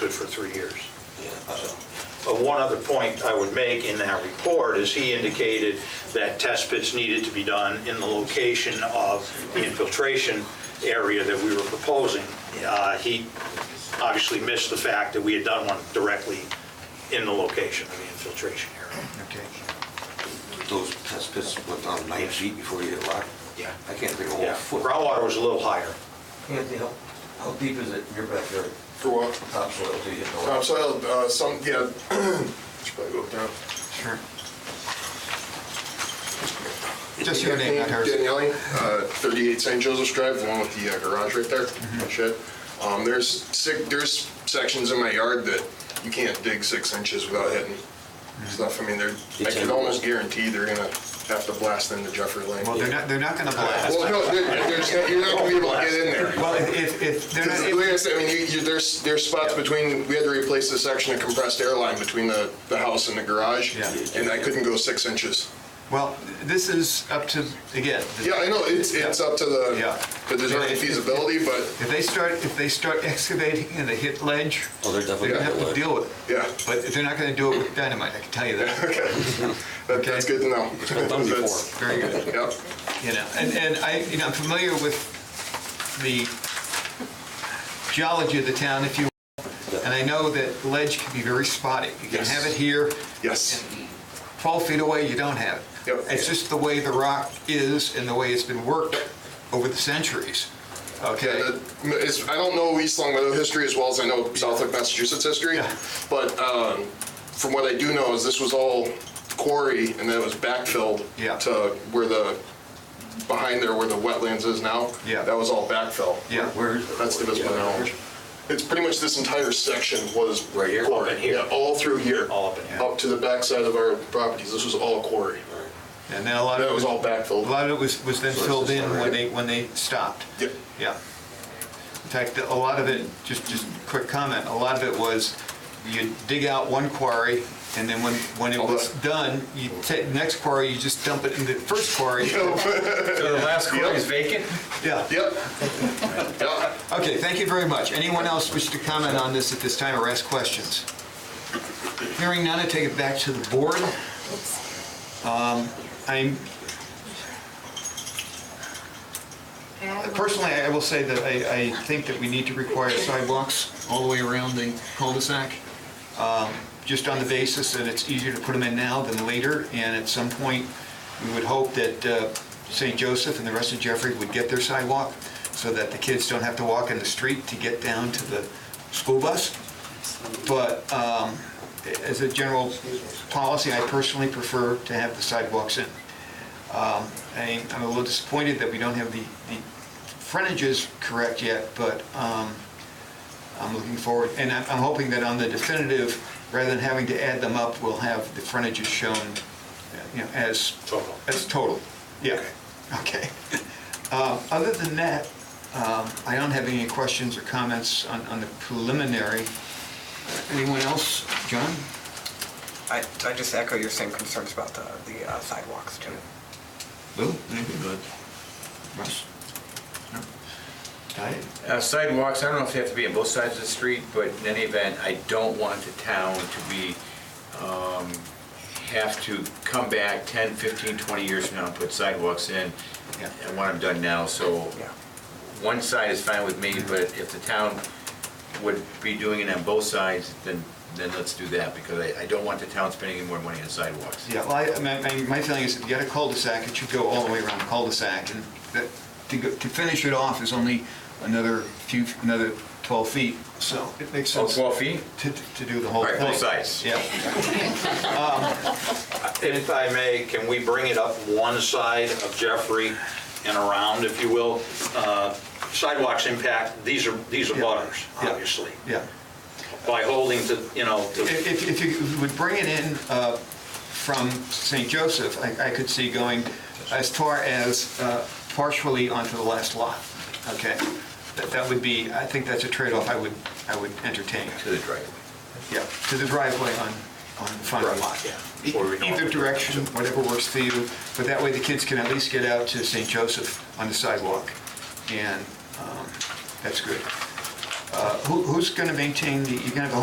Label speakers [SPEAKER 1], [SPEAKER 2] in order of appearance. [SPEAKER 1] good for three years.
[SPEAKER 2] Yeah.
[SPEAKER 1] So, But one other point I would make in that report is he indicated that test pits needed to be done in the location of the infiltration area that we were proposing. Uh, He obviously missed the fact that we had done one directly in the location of the infiltration area.
[SPEAKER 3] Okay.
[SPEAKER 2] Those test pits went down nine feet before you hit rock?
[SPEAKER 1] Yeah.
[SPEAKER 2] I can't think of a whole
[SPEAKER 1] Yeah,
[SPEAKER 2] foot.
[SPEAKER 1] groundwater was a little higher.
[SPEAKER 2] Anthony, how, how deep is it in your backyard?
[SPEAKER 4] For what?
[SPEAKER 2] Topsoil, do you know?
[SPEAKER 4] Topsoil, uh, some, yeah, should probably go up now.
[SPEAKER 3] Sure. Just your name, not hers.
[SPEAKER 4] Daniele, uh, 38 St. Joseph's Drive, the one with the uh, garage right there,
[SPEAKER 3] Mm-hmm.
[SPEAKER 4] shed. Um, There's six, there's sections in my yard that you can't dig six inches without hitting
[SPEAKER 3] Mm-hmm.
[SPEAKER 4] stuff. I mean, they're, I can almost guarantee they're gonna have to blast into Jeffrey Lane.
[SPEAKER 3] Well, they're not, they're not gonna blast.
[SPEAKER 4] Well, no, there- there's, not- you're not gonna be able to get in there.
[SPEAKER 3] Well, if- if, if, they're
[SPEAKER 4] Because
[SPEAKER 3] not,
[SPEAKER 4] Like I said, I mean, you, you, there's, there's spots between, we had to replace the section of compressed air line between the, the house and the garage.
[SPEAKER 3] Yeah.
[SPEAKER 4] And I couldn't go six inches.
[SPEAKER 3] well, this is up to, again, the-
[SPEAKER 4] Yeah, I know, it's, it's up to
[SPEAKER 3] Yeah.
[SPEAKER 4] the, the design
[SPEAKER 3] Yeah.
[SPEAKER 4] feasibility, but,
[SPEAKER 3] if they start, if they start excavating and they hit ledge,
[SPEAKER 2] Oh, they're
[SPEAKER 3] they're
[SPEAKER 2] definitely.
[SPEAKER 3] gonna have to deal with it.
[SPEAKER 4] yeah,
[SPEAKER 3] But they're not gonna do it with dynamite, I can tell you that,
[SPEAKER 4] that- that's
[SPEAKER 3] Okay.
[SPEAKER 4] good to know.
[SPEAKER 2] It's been done
[SPEAKER 4] That's-
[SPEAKER 2] before.
[SPEAKER 3] very good.
[SPEAKER 4] Yep,
[SPEAKER 3] You know, and, and I, you know, I'm familiar with the geology of the town, if you, will, and I know that ledge can be very spotty. You can
[SPEAKER 4] Yes.
[SPEAKER 3] have it here,
[SPEAKER 4] yes,
[SPEAKER 3] 12 feet away, you don't have it.
[SPEAKER 4] Yep.
[SPEAKER 3] It's just the way the rock is and the way it's been worked over the centuries,
[SPEAKER 4] yeah,
[SPEAKER 3] okay?
[SPEAKER 4] that, it's, I don't know East Long Meadow history as well as I know Southwick, Massachusetts history,
[SPEAKER 3] Yeah.
[SPEAKER 4] but, um, from what I do know is this was all quarry and then it was backfilled
[SPEAKER 3] Yeah.
[SPEAKER 4] to where the, behind there where the wetlands is now.
[SPEAKER 3] Yeah.
[SPEAKER 4] That was all backfill.
[SPEAKER 3] Yeah,
[SPEAKER 2] Where is it?
[SPEAKER 4] That's the best of my knowledge. It's pretty much this entire section was.
[SPEAKER 2] Right here?
[SPEAKER 4] quarry.
[SPEAKER 1] Up in here.
[SPEAKER 4] Yeah, all through here.
[SPEAKER 1] All up in here.
[SPEAKER 4] Up to the backside of our properties, this was all quarry.
[SPEAKER 3] and then a lot
[SPEAKER 4] That
[SPEAKER 3] of,
[SPEAKER 4] was all
[SPEAKER 3] it- a
[SPEAKER 4] backfilled.
[SPEAKER 3] lot of it was, was then
[SPEAKER 2] So it's
[SPEAKER 3] filled
[SPEAKER 2] just
[SPEAKER 3] in
[SPEAKER 2] all
[SPEAKER 3] when
[SPEAKER 2] right.
[SPEAKER 3] they, when they stopped.
[SPEAKER 4] Yep.
[SPEAKER 3] Yeah. In fact, a lot of it, just, just quick comment, a lot of it was you dig out one quarry and then when, when it
[SPEAKER 4] All
[SPEAKER 3] was
[SPEAKER 4] that.
[SPEAKER 3] done, you take the next quarry, you just dump it in the first quarry.
[SPEAKER 5] So the last quarter is vacant?
[SPEAKER 3] Yeah.
[SPEAKER 4] Yep. Yep.
[SPEAKER 3] Okay, thank you very much. Anyone else wish to comment on this at this time or ask questions? Hearing none, I take it back to the board. Um, I'm, personally, I will say that I, I think that we need to require sidewalks all the way around the cul-de-sac, um, just on the basis that it's easier to put them in now than later, and at some point, we would hope that uh, St. Joseph and the rest of Jeffrey would get their sidewalk, so that the kids don't have to walk in the street to get down to the school bus. But um, as a general policy, I personally prefer to have the sidewalks in. Um, I- I'm a little disappointed that we don't have the the frontages correct yet, but um, I'm looking forward, and I'm I'm hoping that on the definitive, rather than having to add them up, we'll have the frontages shown, you know, as...
[SPEAKER 1] Total.
[SPEAKER 3] As total, yeah, okay. Um, Other than that, um, I don't have any questions or comments on on the preliminary. Anyone else? John?
[SPEAKER 6] I, I just echo your same concerns about the, the uh, sidewalks too.
[SPEAKER 3] Lou? Anything good? Russ? No? Diane?
[SPEAKER 5] Uh, Sidewalks, I don't know if they have to be on both sides of the street, but in any event, I don't want the town to be, um, have to come back 10, 15, 20 years from now and put sidewalks in.
[SPEAKER 3] Yeah.
[SPEAKER 5] I want them done now, so
[SPEAKER 6] Yeah.
[SPEAKER 5] one side is fine with me, but if the town would be doing it on both sides, then, then let's do that, because I, I don't want the town spending any more money on sidewalks.
[SPEAKER 3] Yeah, well, I- my, my- my feeling is if you got a cul-de-sac, it should go all the way around the cul-de-sac, and that, to, go- to finish it off is only another few, another 12 feet, so it makes
[SPEAKER 5] Oh,
[SPEAKER 3] sense
[SPEAKER 5] 12 feet?
[SPEAKER 3] to, to do the whole
[SPEAKER 5] All
[SPEAKER 3] thing.
[SPEAKER 5] right, both sides.
[SPEAKER 3] Yeah,
[SPEAKER 1] If I may, can we bring it up one side of Jeffrey and around, if you will? Uh, Sidewalks impact, these are, these are
[SPEAKER 3] Yeah.
[SPEAKER 1] butters,
[SPEAKER 3] Yeah.
[SPEAKER 1] obviously.
[SPEAKER 3] yeah.
[SPEAKER 1] By holding to, you know, to,
[SPEAKER 3] If, if you would bring it in uh, from St. Joseph, I, I could see going as far as uh, partially onto the last lot, okay? That, that would be, I think that's a trade-off I would, I would entertain.
[SPEAKER 5] To the driveway.
[SPEAKER 3] Yeah, to the driveway on, on the front of the lot.
[SPEAKER 1] Right,
[SPEAKER 3] E-
[SPEAKER 1] yeah. Or we know-
[SPEAKER 3] Either direction, whatever works for you, but that way the kids can at least get out to St. Joseph on the sidewalk, and um, that's good. Uh, who- Who's going to maintain the, you're going to have a